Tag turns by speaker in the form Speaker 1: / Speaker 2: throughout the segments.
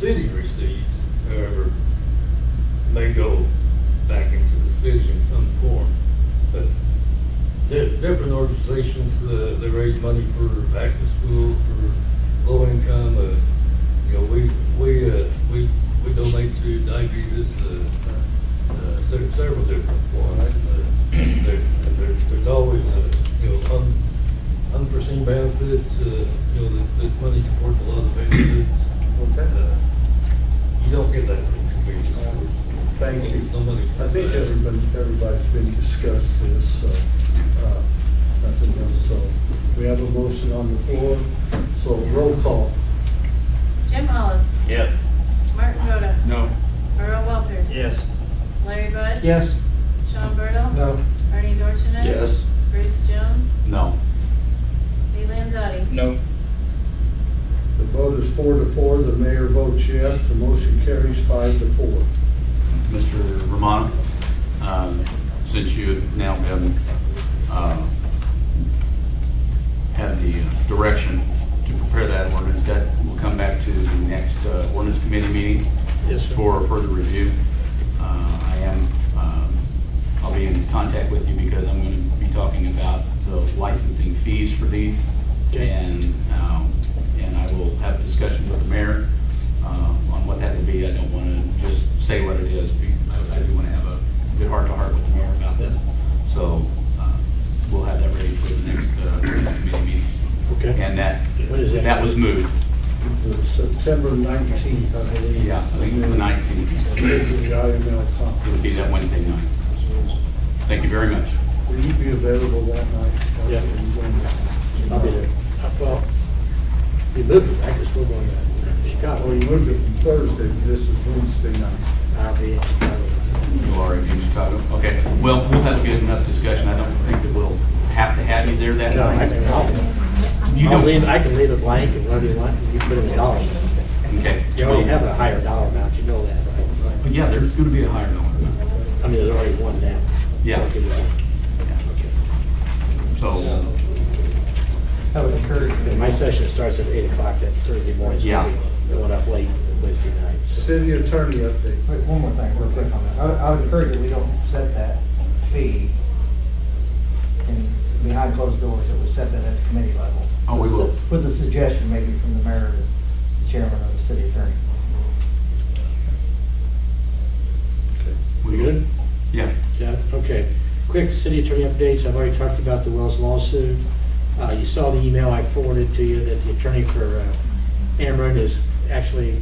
Speaker 1: city receives, however, may go back into the city in some form. But there, different organizations, uh, they raise money for back to school, for low income, uh, you know, we, we, uh, we, we donate to diabetes, uh, uh, se- several different ones. Uh, There, there, there's always, uh, you know, un, unforeseen benefits, uh, you know, this, this money supports a lot of benefits.
Speaker 2: Okay.
Speaker 1: You don't get that from community schools.
Speaker 2: Thank you.
Speaker 1: Nobody.
Speaker 2: I think everybody, everybody's been discussed this, so, uh, nothing else, so. We have a motion on the floor, so roll call.
Speaker 3: Jim Olive,
Speaker 4: Yep.
Speaker 3: Martin Voda,
Speaker 4: No.
Speaker 3: Earl Walters.
Speaker 4: Yes.
Speaker 3: Larry Bud.
Speaker 5: Yes.
Speaker 3: Sean Burdell. Bernie Dorchenez. Bruce Jones.
Speaker 4: No.
Speaker 3: Lee Landzadi.
Speaker 4: No.
Speaker 2: The vote is four to four, the mayor votes yes, the motion carries five to four.
Speaker 4: Mr. Romano, um, since you have now been, uh, had the uh, direction to prepare that ordinance, that will come back to the next uh, ordinance committee meeting.
Speaker 2: Yes, sir.
Speaker 4: For further review. Uh, I am, um, I'll be in contact with you because I'm going to be talking about the licensing fees for these.
Speaker 2: Okay.
Speaker 4: And, um, and I will have a discussion with the mayor um, on what that will be. I don't want to just say what it is. We- I I do want to have a good heart-to-heart with the mayor about this. So uh, we'll have that ready for the next uh, next committee meeting.
Speaker 6: Okay.
Speaker 4: And that,
Speaker 6: What is that?
Speaker 4: that was moved.
Speaker 2: The September nineteenth, I believe.
Speaker 4: Yeah, I think it's the 19th.
Speaker 2: Is the IML
Speaker 4: It would
Speaker 2: conference.
Speaker 4: be that Wednesday night. Thank you very much.
Speaker 2: Will you be available that night?
Speaker 6: Yeah. I'll be there. I thought, you moved it, I guess we're going to
Speaker 2: Well,
Speaker 6: Chicago.
Speaker 2: you moved it from Thursday, but this is Wednesday night.
Speaker 6: I'll be in Chicago.
Speaker 4: You are in Chicago. Okay, well, we'll have a good enough discussion. I don't think that we'll have to have you there that
Speaker 6: No, I can,
Speaker 4: night.
Speaker 6: I'll,
Speaker 4: You
Speaker 6: I'll
Speaker 4: don't-
Speaker 6: leave, I can leave it blank and whatever you want, you put in the dollar. amount.
Speaker 4: Okay.
Speaker 6: You already have a higher dollar amount, you know that,
Speaker 4: Well,
Speaker 6: right?
Speaker 4: Yeah, there's going to be a higher number.
Speaker 6: I mean, there's already one now.
Speaker 4: Yeah.
Speaker 6: Okay,
Speaker 4: So,
Speaker 5: I would encourage
Speaker 6: And My session starts at eight o'clock that Thursday morning. so
Speaker 4: Yeah.
Speaker 6: we Went up late Wednesday night. so.
Speaker 2: City attorney update.
Speaker 5: Wait, one more thing, real quick on that. I would, I would encourage that we don't set that fee in, behind closed doors, that we set that at the committee level.
Speaker 4: Oh, we will.
Speaker 5: With a suggestion maybe from the mayor, the chairman, or the city attorney.
Speaker 4: we good? Yeah.
Speaker 6: Yeah, okay. Quick city attorney updates, I've already talked about the Wells lawsuit. Uh, You saw the email I forwarded to you that the attorney for uh, Ameren is actually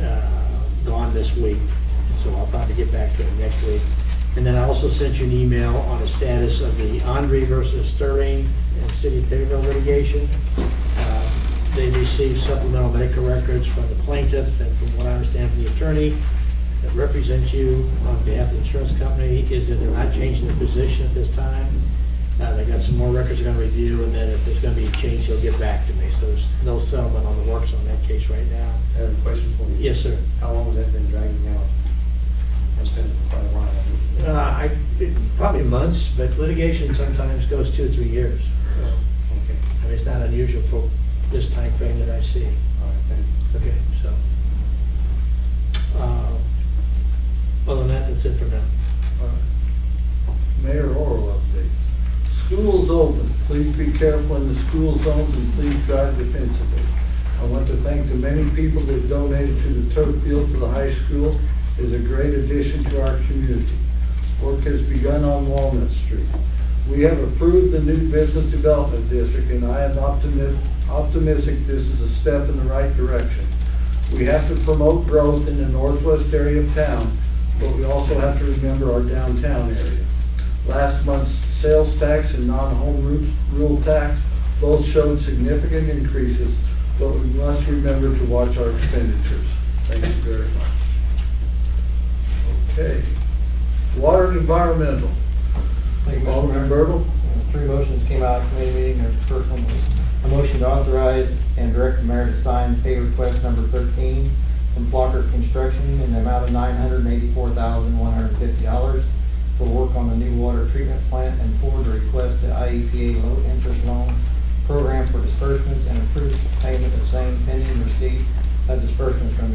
Speaker 6: uh, gone this week, so I'll probably get back to it next week. And then I also sent you an email on the status of the Andre versus Sterling and City of Taylorville litigation. Uh, They received supplemental medical records from the plaintiff and from what I understand from the attorney that represents you on behalf of the insurance company is that they're not changing their position at this time. Uh, They got some more records they're gonna review, and then if there's gonna be a change, they'll get back to me. So there's no settlement on the works on that case right now.
Speaker 7: I have a question for you.
Speaker 6: Yes, sir.
Speaker 7: How long has that been dragging out? That's been quite a while.
Speaker 6: Uh, I, it- probably months, but litigation sometimes goes two or three years. So,
Speaker 7: Okay,
Speaker 6: I mean, it's not unusual for this time frame that I see.
Speaker 7: all right, thank you.
Speaker 6: Okay, so. uh, Other than that, that's it for now.
Speaker 2: Uh, Mayor Oral update. Schools open. Please be careful in the school zones and please drive defensively. I want to thank the many people that donated to the turf field for the high school. It is a great addition to our community. Work has begun on Walnut Street. We have approved the new business development district, and I am optimistic, optimistic this is a step in the right direction. We have to promote growth in the northwest area of town, but we also have to remember our downtown area. Last month's sales tax and non-home ru- rule tax both showed significant increases, but we must remember to watch our expenditures. Thank you very much. Okay. Water and environmental.
Speaker 5: Thank you, Mr.
Speaker 2: Alderman
Speaker 5: Mayor.
Speaker 2: Bertle?
Speaker 5: Uh, Three motions came out of committee meeting, the first one was a motion to authorize and direct the mayor to sign pay request number thirteen from Blocker Construction in the amount of nine hundred and eighty-four thousand, one hundred and fifty dollars for work on the new water treatment plant and forward a request to IEPA low interest loan program for disbursements and approved payment of same pending receipt of disbursements from the